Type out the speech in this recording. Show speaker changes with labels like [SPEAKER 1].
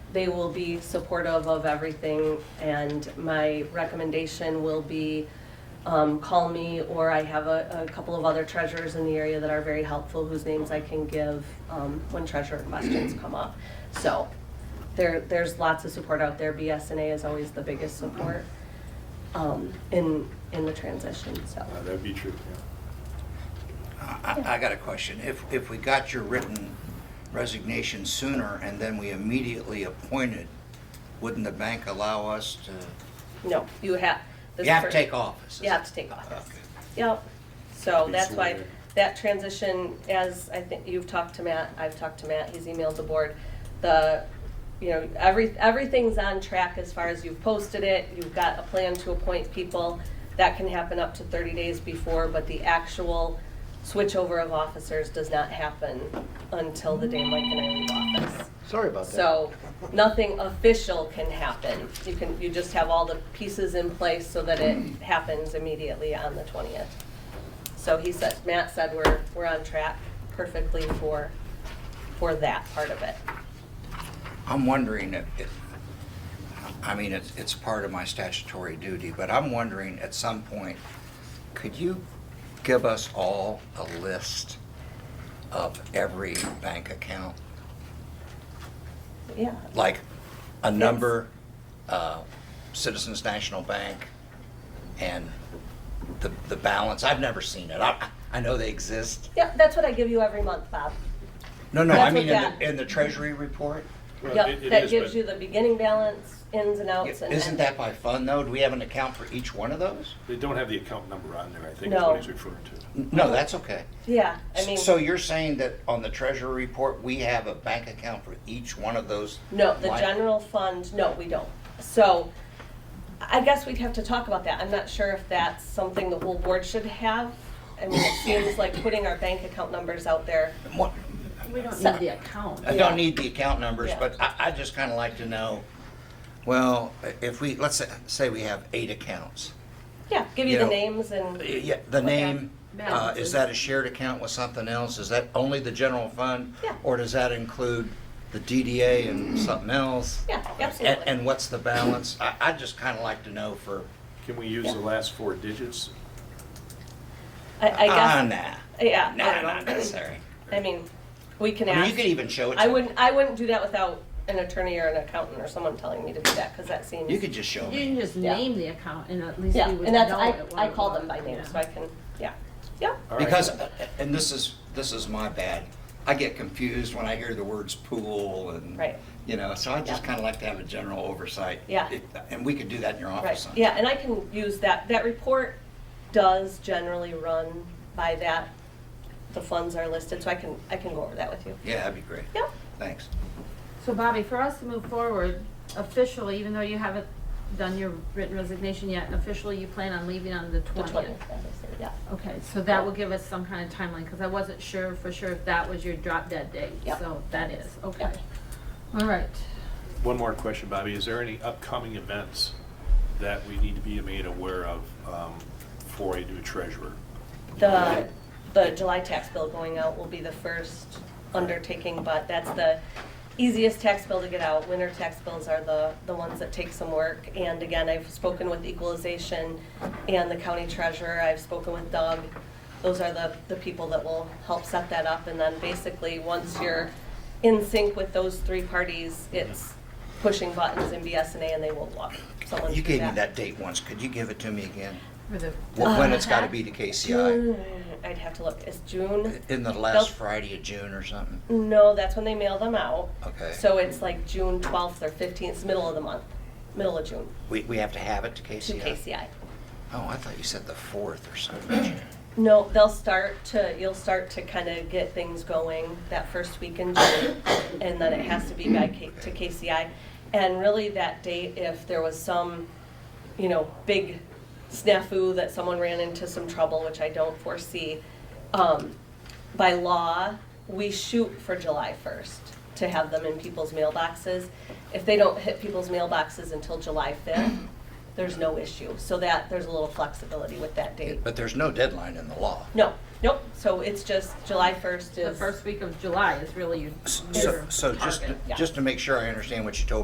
[SPEAKER 1] They will be supportive of everything, and my recommendation will be um, call me, or I have a, a couple of other treasurers in the area that are very helpful, whose names I can give um, when treasurer questions come up. So there, there's lots of support out there. BSNA is always the biggest support um, in, in the transition, so.
[SPEAKER 2] Uh, That'd be true, yeah.
[SPEAKER 3] I, I got a question. If, if we got your written resignation sooner and then we immediately appointed, wouldn't the bank allow us to,
[SPEAKER 1] No, you have. this
[SPEAKER 3] you have to
[SPEAKER 1] per-
[SPEAKER 3] take office? is
[SPEAKER 1] You have
[SPEAKER 3] it?
[SPEAKER 1] to take office.
[SPEAKER 3] Okay.
[SPEAKER 1] Yep. So
[SPEAKER 2] Be
[SPEAKER 1] that's why
[SPEAKER 2] sworn in.
[SPEAKER 1] that transition, as I think you've talked to Matt, I've talked to Matt, he's emailed the board. The, you know, every, everything's on track as far as you've posted it, you've got a plan to appoint people. That can happen up to thirty days before, but the actual switchover of officers does not happen until the day Mike and I leave office.
[SPEAKER 4] Sorry about that.
[SPEAKER 1] So nothing official can happen. You can, you just have all the pieces in place so that it
[SPEAKER 3] Mm.
[SPEAKER 1] happens immediately on the 20th. So he said, Matt said we're, we're on track perfectly for, for that part of it.
[SPEAKER 3] I'm wondering if, if- I mean, it's, it's part of my statutory duty, but I'm wondering at some point, could you give us all a list of every bank account?
[SPEAKER 1] Yeah,
[SPEAKER 3] like a number, uh, Citizens National Bank, and the, the balance. I've never seen it. I, I know they exist.
[SPEAKER 1] yeah, that's what I give you every month, Bob.
[SPEAKER 3] No, no, I
[SPEAKER 1] That's
[SPEAKER 3] mean, in
[SPEAKER 1] what
[SPEAKER 3] the, in the treasury report,
[SPEAKER 2] Well, it-
[SPEAKER 1] Yep,
[SPEAKER 2] it
[SPEAKER 1] that
[SPEAKER 2] is,
[SPEAKER 1] gives
[SPEAKER 2] but-
[SPEAKER 1] you the beginning balance, ins and outs and.
[SPEAKER 3] isn't that by fund though? Do we have an account for each one of those?
[SPEAKER 2] They don't have the account number on there, I think is
[SPEAKER 1] No.
[SPEAKER 2] what he's referring to.
[SPEAKER 3] No, that's okay.
[SPEAKER 1] Yeah, I mean,
[SPEAKER 3] So you're saying that on the treasury report, we have a bank account for each one of those?
[SPEAKER 1] no, the
[SPEAKER 3] line-
[SPEAKER 1] general fund, no, we don't. So I guess we'd have to talk about that. I'm not sure if that's something the whole board should have. I mean, it seems like putting our bank account numbers out there.
[SPEAKER 3] What-
[SPEAKER 5] We don't need the account.
[SPEAKER 3] I don't need the account numbers,
[SPEAKER 1] Yeah.
[SPEAKER 3] but I, I just kind of like to know, well, if we, let's say- say we have eight accounts.
[SPEAKER 1] Yeah, give you
[SPEAKER 3] You
[SPEAKER 1] the
[SPEAKER 3] know,
[SPEAKER 1] names and,
[SPEAKER 3] Yeah, the name, uh,
[SPEAKER 5] Balances.
[SPEAKER 3] is that a shared account with something else? Is that only the general fund?
[SPEAKER 1] Yeah.
[SPEAKER 3] Or does that include the DDA and something else?
[SPEAKER 1] yeah,
[SPEAKER 3] And,
[SPEAKER 1] absolutely.
[SPEAKER 3] and what's the balance? I, I'd just kind of like to know for,
[SPEAKER 2] Can we use the last four digits?
[SPEAKER 1] I, I
[SPEAKER 3] ah,
[SPEAKER 1] guess,
[SPEAKER 3] nah,
[SPEAKER 1] yeah,
[SPEAKER 3] nah,
[SPEAKER 1] I
[SPEAKER 3] not
[SPEAKER 1] don't know.
[SPEAKER 3] necessary.
[SPEAKER 1] I mean, we can
[SPEAKER 3] I mean,
[SPEAKER 1] ask.
[SPEAKER 3] you could even show it to.
[SPEAKER 1] I wouldn't, I wouldn't do that without an attorney or an accountant or someone telling me to do that, because that seems.
[SPEAKER 3] You could just show
[SPEAKER 5] You
[SPEAKER 3] me.
[SPEAKER 5] can just
[SPEAKER 1] Yeah.
[SPEAKER 5] name the account and at least
[SPEAKER 1] Yeah,
[SPEAKER 5] we would
[SPEAKER 1] and
[SPEAKER 5] know
[SPEAKER 1] that's,
[SPEAKER 5] it.
[SPEAKER 1] I,
[SPEAKER 5] what
[SPEAKER 1] I
[SPEAKER 5] it
[SPEAKER 1] called
[SPEAKER 5] was.
[SPEAKER 1] them by name,
[SPEAKER 5] Yeah.
[SPEAKER 1] so I can, yeah, yeah.
[SPEAKER 2] All right.
[SPEAKER 3] Because, and this is, this is my bad, I get confused when I hear the words pool and.
[SPEAKER 1] Right.
[SPEAKER 3] You know, so I just
[SPEAKER 1] Yeah.
[SPEAKER 3] kind of like to have a general oversight.
[SPEAKER 1] Yeah.
[SPEAKER 3] And we could do that in your office
[SPEAKER 1] Right,
[SPEAKER 3] sometime.
[SPEAKER 1] yeah, and I can use that, that report does generally run by that, the funds are listed, so I can, I can go over that with you.
[SPEAKER 3] Yeah, that'd be great.
[SPEAKER 1] Yeah.
[SPEAKER 3] Thanks.
[SPEAKER 5] So Bobby, for us to move forward officially, even though you haven't done your written resignation yet, and officially you plan on leaving on the
[SPEAKER 1] The
[SPEAKER 5] twentieth.
[SPEAKER 1] twentieth, obviously, yeah.
[SPEAKER 5] Okay, so that will give us some kind of timeline, because I wasn't sure for sure if that was your drop dead date,
[SPEAKER 1] Yep.
[SPEAKER 5] so that is, okay.
[SPEAKER 1] Yep.
[SPEAKER 5] All right,
[SPEAKER 2] One more question, Bobby. Is there any upcoming events that we need to be made aware of um, for a new treasurer?
[SPEAKER 1] The, the July tax bill going out will be the first undertaking, but that's the easiest tax bill to get out. Winter tax bills are the, the ones that take some work. And again, I've spoken with equalization and the county treasurer, I've spoken with Doug. Those are the, the people that will help set that up. And then basically, once you're in sync with those three parties, it's pushing buttons in BSNA and they will walk someone
[SPEAKER 3] You
[SPEAKER 1] through
[SPEAKER 3] gave me
[SPEAKER 1] that. Uh,
[SPEAKER 3] that date once, could you give it to me again?
[SPEAKER 5] for the, Uh,
[SPEAKER 3] Wh- When it's gotta be to KCI?
[SPEAKER 1] I'd have to look, it's June?
[SPEAKER 3] In the
[SPEAKER 1] Nope.
[SPEAKER 3] last Friday of June or something?
[SPEAKER 1] No, that's when they mail them out.
[SPEAKER 3] Okay.
[SPEAKER 1] So it's like June twelfth or fifteenth, middle of the month, middle of June,
[SPEAKER 3] We, we have to have it to
[SPEAKER 1] to
[SPEAKER 3] KCI?
[SPEAKER 1] KCI.
[SPEAKER 3] Oh, I thought you said the fourth or something.
[SPEAKER 1] No, they'll start to, you'll start to kind of get things going that first week in June, and then it has to be by K, to KCI. And really, that date, if there was some, you know, big snafu that someone ran into some trouble, which I don't foresee, um, by law, we shoot for July first to have them in people's mailboxes. If they don't hit people's mailboxes until July fifth, there's no issue. So that, there's a little flexibility with that date.
[SPEAKER 3] But there's no deadline in the law.
[SPEAKER 1] No, nope, so it's just July first
[SPEAKER 5] the
[SPEAKER 1] is.
[SPEAKER 5] first week of July is really your
[SPEAKER 3] S-
[SPEAKER 5] your
[SPEAKER 3] So, so just,
[SPEAKER 5] target.
[SPEAKER 3] to- just to make sure I understand what you told